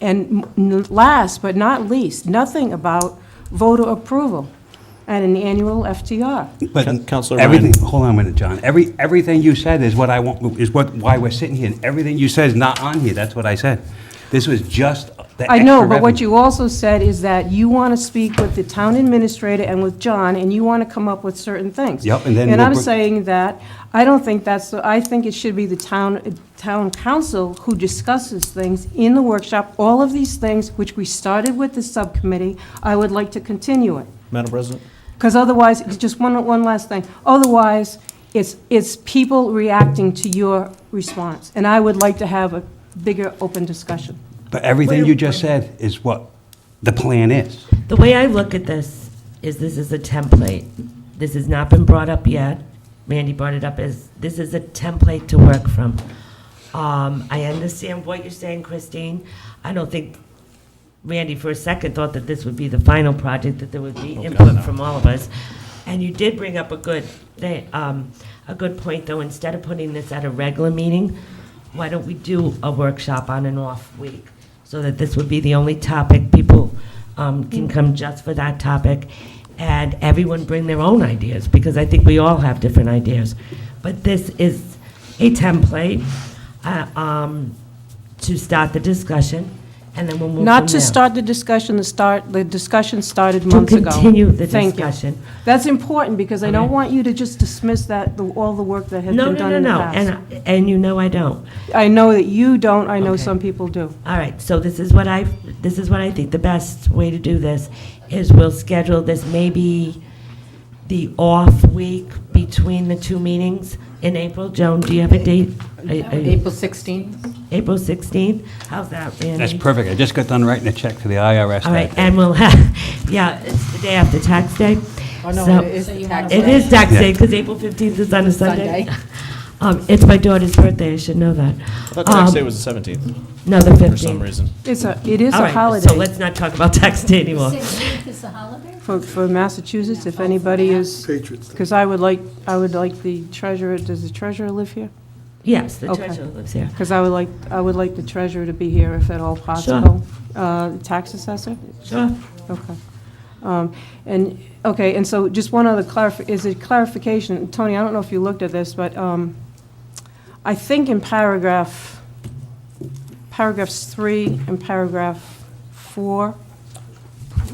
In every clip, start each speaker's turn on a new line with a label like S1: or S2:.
S1: And n- last but not least, nothing about voter approval at an annual FTR.
S2: But
S3: Counselor
S2: everything, hold on a minute, John. Every, everything you said is what I want, is what, why we're sitting here. And Everything you said is not on here. That's what I said. This was just the
S1: I know,
S2: extra
S1: but what
S2: revenue.
S1: you also said is that you want to speak with the town administrator and with John, and you want to come up with certain things.
S2: Yep, and then
S1: And
S2: we'll
S1: I'm
S2: br-
S1: saying that, I don't think that's, the- I think it should be the town, town council who discusses things in the workshop, all of these things, which we started with the subcommittee, I would like to continue it.
S3: Madam President?
S1: Because otherwise, just one, one last thing, otherwise, it's, it's people reacting to your response. And I would like to have a bigger, open discussion.
S2: But everything you just said is what the plan is.
S4: The way I look at this is this is a template. This has not been brought up yet. Randy brought it up as, this is a template to work from. Um, I understand what you're saying, Christine. I don't think Randy for a second thought that this would be the final project, that there would be input from all of us. And you did bring up a good, they, um, a good point, though, instead of putting this at a regular meeting, why don't we do a workshop on an off week? So that this would be the only topic people, um, can come just for that topic, and everyone bring their own ideas, because I think we all have different ideas. But this is a template, uh, um, to start the discussion, and then we'll move from
S1: Not to
S4: there.
S1: start the discussion, the start, the discussion started
S4: To
S1: months ago.
S4: continue the
S1: Thank you.
S4: discussion.
S1: That's important, because I don't
S4: Okay.
S1: want you to just dismiss that, the- all the work that has been
S4: No, no,
S1: done
S4: no,
S1: in the
S4: no,
S1: past.
S4: and, and you know I don't.
S1: I know that you don't, I know
S4: Okay.
S1: some people do.
S4: All right, so this is what I, this is what I think the best way to do this is we'll schedule this maybe the off week between the two meetings in April. Joan, do you have a date? Are- are you-
S5: April 16th?
S4: April 16th? How's that, Randy?
S2: That's perfect. I just got done writing a check to the IRS.
S4: All right,
S2: that day.
S4: and we'll have, yeah, it's the day after tax day.
S5: Oh, no,
S4: So-
S5: it is tax
S4: It
S5: day.
S4: is tax
S2: Yeah.
S4: day, because April 15th is on a Sunday.
S5: Sunday.
S4: Um, It's my daughter's birthday, I should know that.
S3: I thought tax
S4: Um,
S3: day was the 17th,
S4: No, the 15th.
S3: for some reason.
S1: It's a, it is
S4: All
S1: a
S4: right,
S1: holiday.
S4: So let's not talk about tax day anymore.
S6: Sixteenth is a holiday?
S1: For, for Massachusetts, if anybody is,
S7: Patriots.
S1: because I would like, I would like the treasurer, does the treasurer live here?
S4: Yes, the
S1: Okay.
S4: treasurer lives here.
S1: Because I would like, I would like the treasurer to be here if at all possible. Uh, Tax assessor?
S4: Sure.
S1: Okay. Um, And, okay, and so just one other clarif, is it clarification? Tony, I don't know if you looked at this, but um, I think in paragraph, paragraphs three and paragraph four,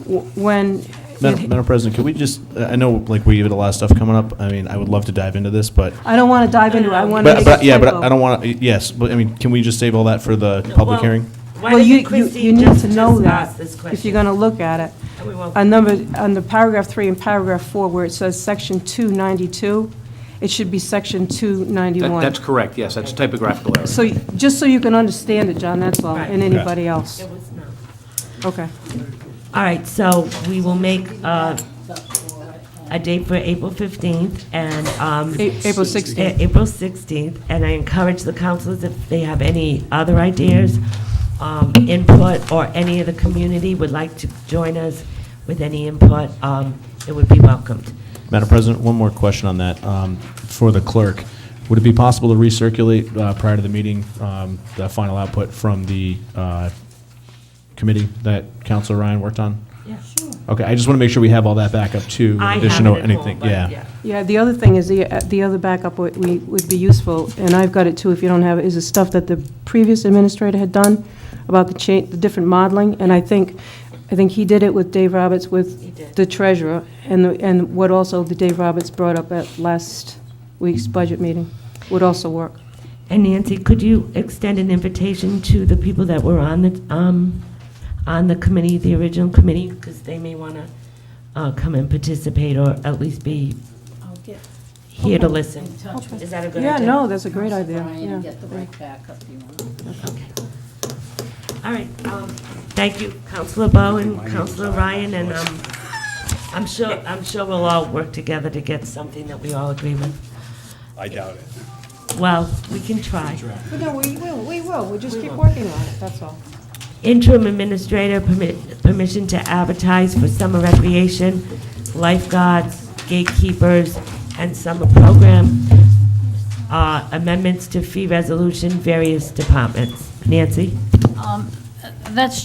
S1: w- when,
S3: Madam Madam President, could we just, I know, like, we have a lot of stuff coming up. I mean, I would love to dive into this, but,
S1: I don't want to dive into it, I want to
S3: but,
S1: make
S3: but,
S1: a
S3: yeah, but
S1: typo.
S3: I don't want to, yes, but, I mean, can we just save all that for the public hearing?
S4: Why
S1: Well, you,
S4: doesn't
S1: you you
S4: Christine
S1: need
S4: just
S1: to know
S4: discuss
S1: that
S4: this question?
S1: if you're going to look at it.
S4: And we won't.
S1: On number, on the paragraph three and paragraph four, where it says section 292, it should be section 291.
S8: That- That's correct, yes, that's typographical error.
S1: So, just so you can understand it, John, that's all, and anybody else.
S4: It was not.
S1: Okay.
S4: All right, so we will make uh, a date for April 15th and. um,
S1: A- April 16th.
S4: A- April 16th, and I encourage the councilors, if they have any other ideas, um, input, or any of the community would like to join us with any input, um, it would be welcomed.
S3: Madam President, one more question on that, um, for the clerk. Would it be possible to recirculate, uh, prior to the meeting, um, the final output from the, uh, committee that Counselor Ryan worked on?
S4: Yeah, sure.
S3: Okay, I just want to make sure we have all that back up too, in
S4: I have
S3: addition
S4: it
S3: to
S4: at
S3: anything,
S4: home, but
S3: yeah.
S1: Yeah, the other thing is, the, uh, the other backup would, we- would be useful, and I've got it too, if you don't have it, is the stuff that the previous administrator had done about the cha, the different modeling, and I think, I think he did it with Dave Roberts with the treasurer, and, the- and what also the Dave Roberts brought up at last week's budget meeting would also work.
S4: And Nancy, could you extend an invitation to the people that were on the, um, on the committee, the original committee? Because they may want to, uh, come and participate or at least be
S6: I'll get
S4: here to listen. Is that a good
S1: Yeah,
S4: idea?
S1: no, that's a great
S6: Council
S1: idea,
S6: Ryan and
S1: yeah.
S6: get the right backup you want.
S4: Okay. All right, um, thank you, Counselor Bo and Counselor Ryan, and, um, I'm sure, I'm sure we'll all work together to get something that we all agree with.
S2: I doubt it.
S4: Well, we can try.
S1: But no, we will, we will, we just keep working on it, that's all.
S4: Interim Administrator, permi- permission to advertise for summer recreation, lifeguards, gatekeepers, and summer program. Uh, Amendments to fee resolution, various departments. Nancy?
S6: Um, uh, that's